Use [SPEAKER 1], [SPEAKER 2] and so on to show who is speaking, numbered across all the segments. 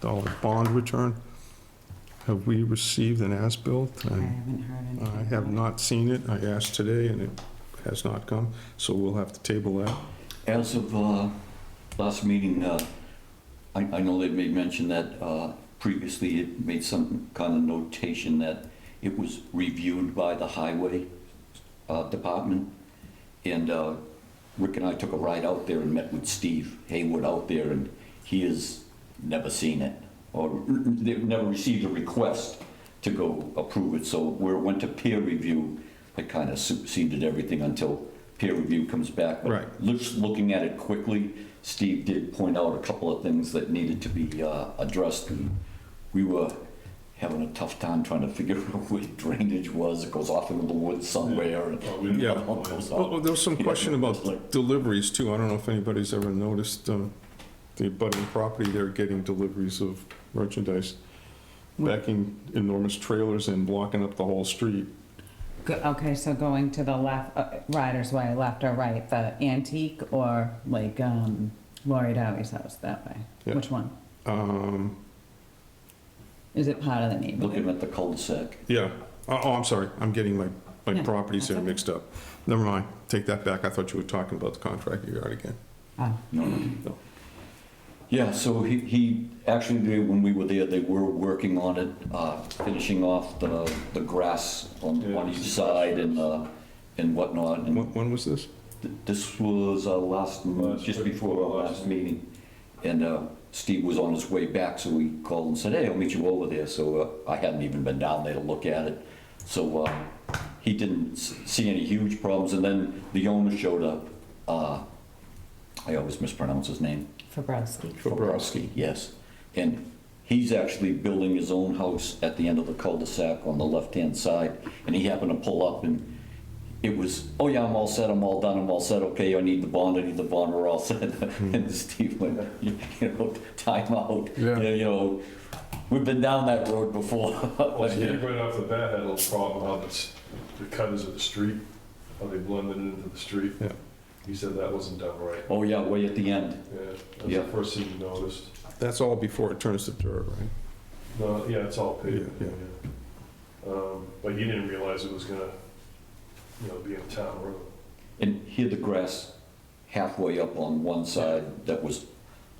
[SPEAKER 1] dollar bond return. Have we received an as-built?
[SPEAKER 2] I
[SPEAKER 1] And
[SPEAKER 2] haven't heard anything.
[SPEAKER 1] I have
[SPEAKER 2] about
[SPEAKER 1] not seen it. I asked today and it has not come, so we'll have to table that.
[SPEAKER 3] As of uh, last meeting, uh, I I know they made mention that uh, previously it made some kind of notation that it was reviewed by the highway uh, department. And uh, Rick and I took a ride out there and met with Steve Haywood out there, and he has never seen it, or they've never received a request to go approve it. So where it went to peer review, it kind of superseded everything until peer review comes back. But
[SPEAKER 1] Right.
[SPEAKER 3] just looking at it quickly, Steve did point out a couple of things that needed to be uh, addressed. and We were having a tough time trying to figure out where drainage was. It goes off into the woods somewhere. and-
[SPEAKER 1] Yeah.
[SPEAKER 3] It goes off.
[SPEAKER 1] Well, there was some question about deliveries too. I don't know if anybody's ever noticed um, the abutting property, they're getting deliveries of merchandise, backing enormous trailers and blocking up the whole street.
[SPEAKER 2] it. Go- Okay, so going to the left, uh, Riders Way, left or right, the antique or like um, Lori Dowie's house that way?
[SPEAKER 1] Yeah.
[SPEAKER 2] Which one?
[SPEAKER 1] Um,
[SPEAKER 2] Is it part of the
[SPEAKER 3] Looking
[SPEAKER 2] neighborhood?
[SPEAKER 3] at the cul-de-sac.
[SPEAKER 1] Yeah, oh, oh, I'm sorry, I'm getting my, my
[SPEAKER 2] Yeah,
[SPEAKER 1] properties there
[SPEAKER 2] that's okay.
[SPEAKER 1] mixed up. Never mind, take that back, I thought you were talking about the contractor yard again.
[SPEAKER 2] Oh,
[SPEAKER 3] No,
[SPEAKER 1] No.
[SPEAKER 3] no. Yeah, so he, he, actually, they- when we were there, they were working on it, uh, finishing off the, the grass on, on each side and, uh, and whatnot. And
[SPEAKER 1] When, when was this?
[SPEAKER 3] th- this was our last, m-
[SPEAKER 4] Last-
[SPEAKER 3] just before our last meeting. And, uh, Steve was on his way back, so we called and said, hey, I'll meet you over there. So, uh, I hadn't even been down there to look at it. So, uh, he didn't s- see any huge problems. And then the owner showed up, uh, I always mispronounce his name.
[SPEAKER 2] Fabrowski.
[SPEAKER 3] Bobrowski, yes. And he's actually building his own house at the end of the cul-de-sac on the left-hand side, and he happened to pull up and it was, oh yeah, I'm all set, I'm all done, I'm all set, okay, I need the bond, I need the bond, we're all set. And Steve went, you you know, time out,
[SPEAKER 1] Yeah.
[SPEAKER 3] you know, we've been down that road before.
[SPEAKER 4] Well, Steve right off the bat had a little problem how this- the cutters of the street, how they blended into the street.
[SPEAKER 1] Yeah.
[SPEAKER 4] He said that wasn't done right.
[SPEAKER 3] Oh yeah, way at the end,
[SPEAKER 4] Yeah, that's the
[SPEAKER 3] Yeah.
[SPEAKER 4] first thing he noticed.
[SPEAKER 1] That's all before it turns to dirt, right?
[SPEAKER 4] No, yeah, it's all paved.
[SPEAKER 1] Yeah,
[SPEAKER 4] yeah. Um, But he didn't realize it was gonna, you know, be a town road.
[SPEAKER 3] and here the grass halfway up on one side that was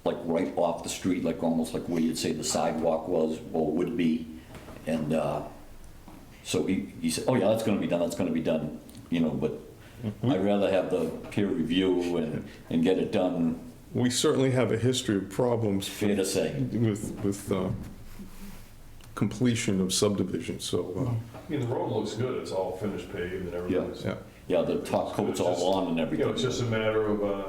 [SPEAKER 3] like right off the street, like almost like where you'd say the sidewalk was or would be. And uh, so he, he said, oh yeah, that's gonna be done, that's gonna be done, you know, but I'd rather have the peer review and, and get it done,
[SPEAKER 1] We certainly have a history of problems
[SPEAKER 3] fair to say.
[SPEAKER 1] with, with uh, completion of subdivisions, so,
[SPEAKER 4] I mean, the road looks good, it's all finished paved and
[SPEAKER 1] uh,
[SPEAKER 4] everything's.
[SPEAKER 1] yeah.
[SPEAKER 3] Yeah, the top coat's all on and
[SPEAKER 4] You know,
[SPEAKER 3] everything.
[SPEAKER 4] it's just a matter of uh,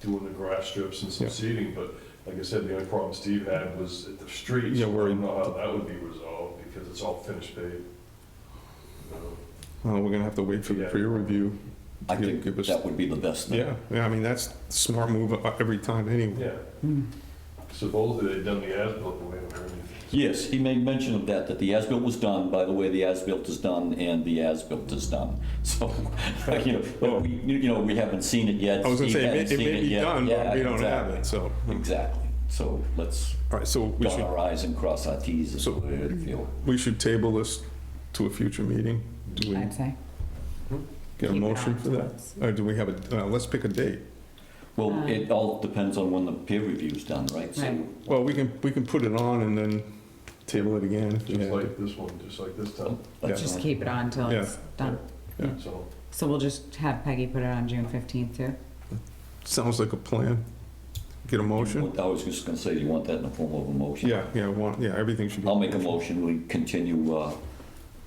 [SPEAKER 4] doing the grass strips and some
[SPEAKER 1] Yeah.
[SPEAKER 4] seeding, but like I said, the only problem Steve had was at the streets.
[SPEAKER 1] Yeah, where
[SPEAKER 4] I
[SPEAKER 1] he-
[SPEAKER 4] don't know how that would be resolved, because it's all finished paved. Um, You know,
[SPEAKER 1] Uh, We're gonna have to wait for the
[SPEAKER 4] Yeah.
[SPEAKER 1] peer review.
[SPEAKER 3] I
[SPEAKER 1] Give-
[SPEAKER 3] think
[SPEAKER 1] give us-
[SPEAKER 3] that would be the best thing.
[SPEAKER 1] Yeah, yeah, I mean, that's smart move uh, every time anyway.
[SPEAKER 4] Yeah,
[SPEAKER 1] Hmm.
[SPEAKER 4] supposedly they'd done the as-built, but we haven't heard anything.
[SPEAKER 3] Yes, he made mention of that, that the as-built was done, by the way, the as-built is done, and the as-built is done. So, you know, but we, you know, we haven't seen it yet.
[SPEAKER 1] I was gonna
[SPEAKER 3] Steve
[SPEAKER 1] say, it
[SPEAKER 3] hasn't
[SPEAKER 1] may- it
[SPEAKER 3] seen
[SPEAKER 1] may be
[SPEAKER 3] yet.
[SPEAKER 1] done, but
[SPEAKER 3] Yeah,
[SPEAKER 1] we don't have
[SPEAKER 3] exactly.
[SPEAKER 1] it, so.
[SPEAKER 3] Exactly, so let's
[SPEAKER 1] All right, so we
[SPEAKER 3] dot
[SPEAKER 1] should,
[SPEAKER 3] our i's and cross our t's, is
[SPEAKER 1] So-
[SPEAKER 3] what I feel.
[SPEAKER 1] we should table this to a future meeting? Do we
[SPEAKER 2] I'd say.
[SPEAKER 1] get a
[SPEAKER 2] Keep it
[SPEAKER 1] motion
[SPEAKER 2] on
[SPEAKER 1] for that?
[SPEAKER 2] towards-
[SPEAKER 1] Or do we have a, uh, let's pick a date.
[SPEAKER 3] Well, it all depends on when the peer review's done, right? So
[SPEAKER 2] Um, Right.
[SPEAKER 1] Well, we can, we can put it on and then table it again. if we
[SPEAKER 4] Just
[SPEAKER 1] have to.
[SPEAKER 4] like this one, just like this time,
[SPEAKER 3] let's
[SPEAKER 2] Just
[SPEAKER 3] not-
[SPEAKER 2] keep it on till it's done.
[SPEAKER 4] so.
[SPEAKER 2] So we'll just have Peggy put it on June 15th too?
[SPEAKER 1] Sounds like a plan. Get a motion?
[SPEAKER 3] I was just gonna say, you want that in the form of a motion?
[SPEAKER 1] Yeah, yeah, I want, yeah, everything should be.
[SPEAKER 3] I'll make a motion, we continue uh,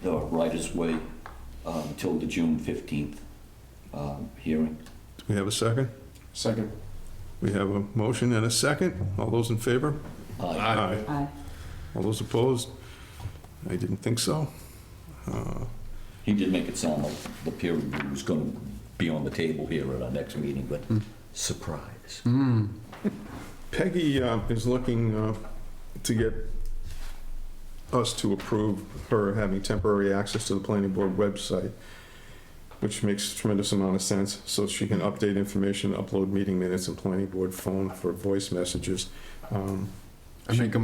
[SPEAKER 3] the right way uh, until the June 15th um, hearing.
[SPEAKER 1] Do we have a second?
[SPEAKER 4] Second.
[SPEAKER 1] We have a motion and a second. All those in favor?
[SPEAKER 3] Aye.
[SPEAKER 1] Aye.
[SPEAKER 2] Aye.
[SPEAKER 1] All those opposed? I didn't think so. Uh,
[SPEAKER 3] He did make it sound like the peer review was going to be on the table here at our next meeting, but surprise.
[SPEAKER 1] Peggy uh, is looking uh, to get us to approve her having temporary access to the planning board website, which makes tremendous amount of sense, so she can update information, upload meeting minutes, and planning board phone for voice messages. Um,
[SPEAKER 5] I make a